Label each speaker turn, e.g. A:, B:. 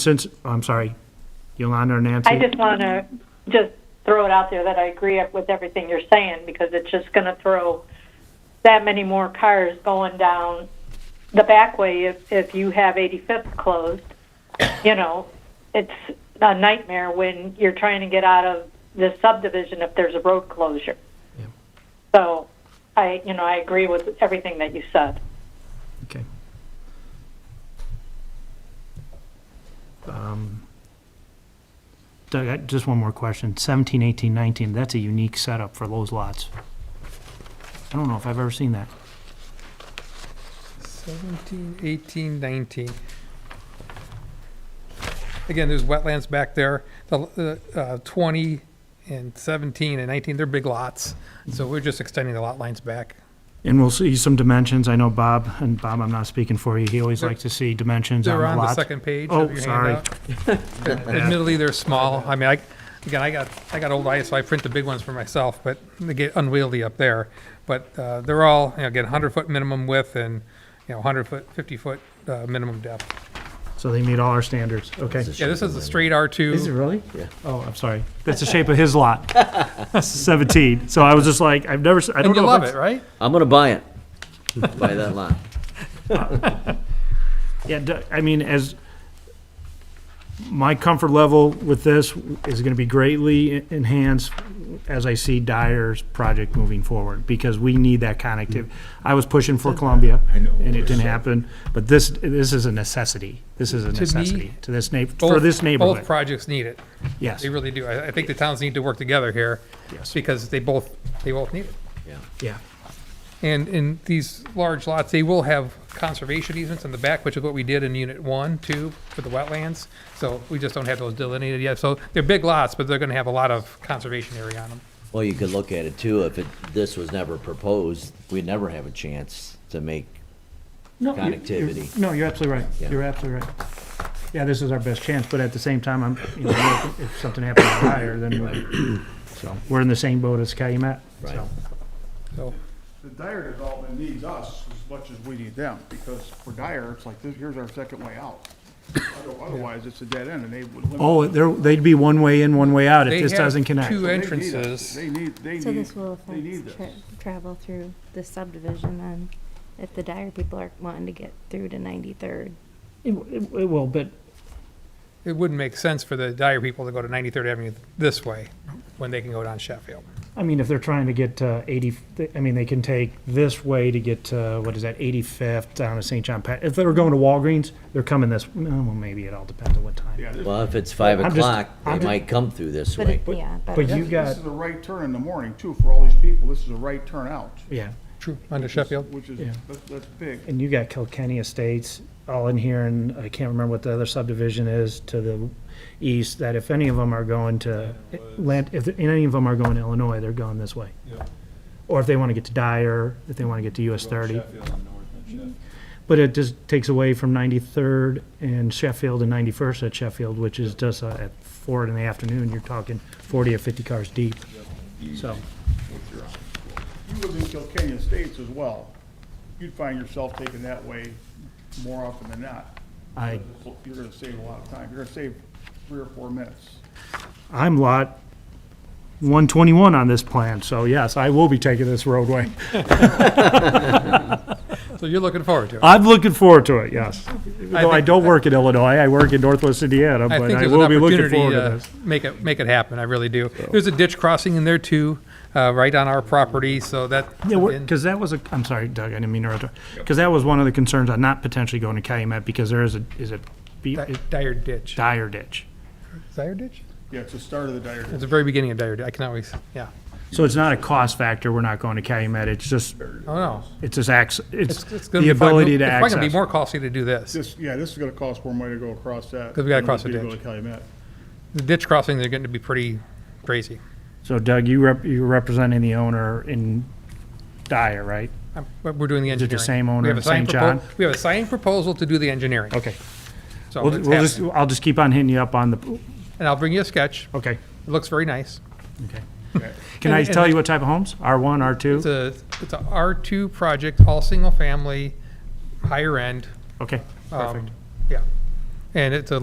A: since, I'm sorry, Yolanda or Nancy?
B: I just want to just throw it out there that I agree with everything you're saying because it's just going to throw that many more cars going down the back way if, if you have 85th closed. You know, it's a nightmare when you're trying to get out of the subdivision if there's a road closure.
A: Yeah.
B: So I, you know, I agree with everything that you said.
A: Okay. Um, Doug, I- just one more question. 17, 18, 19, that's a unique setup for those lots. I don't know if I've ever seen that.
C: 17, 18, 19. Again, there's wetlands back there. The uh, uh, 20 and 17 and 19, they're big lots. So we're just extending the lot lines back.
A: And we'll see some dimensions. I know Bob, and Bob, I'm not speaking for you, he always likes to see dimensions on
C: They're
A: the
C: on the
A: lot.
C: second page
A: Oh,
C: of your
A: sorry.
C: handout. Admittedly, they're small. I mean, I, again, I got, I got old eyes, so I print the big ones for myself, but they get unwieldy up there. But uh, they're all, you know, again, 100-foot minimum width and, you know, 100-foot, 50-foot uh, minimum depth.
A: So they meet all our standards, okay.
C: Yeah, this is a straight R2.
A: really? Yeah. Oh, I'm sorry. That's the shape of his lot. 17. So I was just like, I've never, s- I don't
C: And
A: know. if
C: you love
A: it's-
C: it, right?
D: I'm gonna buy it. buy that lot.
A: Yeah, d- I mean, as, my comfort level with this is gonna be greatly en- enhanced as I see Dyer's project moving forward, because we need that connectivity. I was pushing for Columbia, and it didn't happen, but this, this is a necessity. This is a necessity to this neigh, for
C: Both-
A: this
C: Both
A: neighborhood,
C: projects need it.
A: yes,
C: They really do. I, I think the towns need to work together here.
A: Yes.
C: Because they both, they both need it.
A: yeah.
C: And in these large lots, they will have conservation easements in the back, which is what we did in unit one, two, for the wetlands. So we just don't have those delineated yet. So they're big lots, but they're gonna have a lot of conservation area on them.
D: Well, you could look at it too, if it, this was never proposed, we'd never have a chance to make,
A: No, you- you're-
D: Connectivity.
A: No, you're absolutely
D: Yeah.
A: right. You're absolutely right. Yeah, this is our best chance, but at the same time, I'm, you know, if something happens to Dyer, then we're, so, we're in the same boat as Calumet,
D: Right.
A: so.
C: So,
E: The Dyer development needs us as much as we need them, because for Dyer, it's like, this- here's our second way out. Other- Otherwise, it's a dead end, and they would limit.
A: Oh, there, they'd be one way in, one way out if
C: They
A: this
C: have
A: doesn't connect.
C: two e-
E: They need us.
C: entrances.
E: They need, they
F: So
E: need,
F: this will
E: they need
F: affect
E: this.
F: tra- travel through the subdivision then, if the Dyer people are wanting to get through to 93rd.
A: It, it- it will, but
C: it wouldn't make sense for the Dyer people to go to Ninety-third Avenue this way, when they can go down Sheffield.
A: I mean, if they're trying to get uh, 80, I mean, they can take this way to get, uh, what is that, 85th down to St. John Pat. If they were going to Walgreens, they're coming this, well, maybe it all depends on what time.
E: Yeah, this,
D: well, if it's five
A: I'm just-
D: o'clock,
A: I'm
D: they
A: ju-
D: might come through this
F: But
D: way.
F: it, yeah, but
A: But you
E: this
A: got,
E: is a right turn in the morning, too, for all these people, this is a right turn out,
A: yeah.
C: True. Under Sheffield.
E: which is,
A: Yeah.
E: that's, that's big.
A: And you got Kilkenny Estates all in here, and I can't remember what the other subdivision is to the east, that if any of them are going to, land, if any of them are going to Illinois, they're going this way. Or if they want to get to Dyer, if they want to get to US 30. But it just takes away from 93rd and Sheffield and 91st at Sheffield, which is just uh, at four in the afternoon, you're talking 40 or 50 cars deep. So,
E: You live in Kilkenny Estates as well, you'd find yourself taking that way more often than not.
A: I,
E: You're gonna save a lot of time, you're gonna save three or four minutes.
A: I'm lot 121 on this plan, so yes, I will be taking this roadway.
C: So you're looking forward to it.
A: I'm looking forward to it, yes. Though I
C: think-
A: don't work in Illinois, I work in Northwest Indiana,
C: I
A: but
C: think
A: I
C: there's an
A: will be looking
C: opportunity uh,
A: forward to
C: to
A: this.
C: make it, make it happen, I really do. There's a ditch crossing in there too, uh, right on our property, so that.
A: Yeah,
C: and-
A: because that was a, I'm sorry, Doug, I didn't mean to, because that was one of the concerns on not potentially going to Calumet, because there is a, is a be-
C: Di-
A: a
C: Dyer Ditch.
A: dire ditch.
C: Dyer Ditch?
E: Yeah, it's the start of the Dyer
C: It's the very beginning of Dyer Ditch. I can always, yeah.
A: So it's not a cost factor, we're not going to Calumet, it's just,
C: Oh, no.
A: it's just acc, it's
C: It's- it's gonna
A: the
C: be probably-
A: ability to
C: It's probably going to be
A: access.
C: more costly to do this.
E: This, yeah, this is gonna cost more money to go across that.
C: 'Cause we gotta
E: than it
C: cross
E: would
C: the
E: be to
C: ditch.
E: Go to Calumet.
C: The ditch crossings are going to be pretty crazy.
A: So Doug, you rep, you're representing the owner in Dyer, right?
C: I'm- But we're doing the
A: it the
C: engineering.
A: same owner
C: We have a
A: in St.
C: signed
A: John?
C: propo- We have a signed proposal to do the engineering.
A: Okay.
C: So
A: We'll,
C: it's
A: we'll just,
C: happening.
A: I'll just keep on hitting you up on the,
C: And I'll bring you a sketch.
A: okay,
C: It looks very nice.
A: okay.
E: Okay.
A: Can I
C: And- and-
A: tell you what type of homes? R1,
C: It's
A: R2?
C: a, it's a R2 project, all single family, higher end.
A: Okay,
C: um,
A: perfect.
C: Yeah. And it's a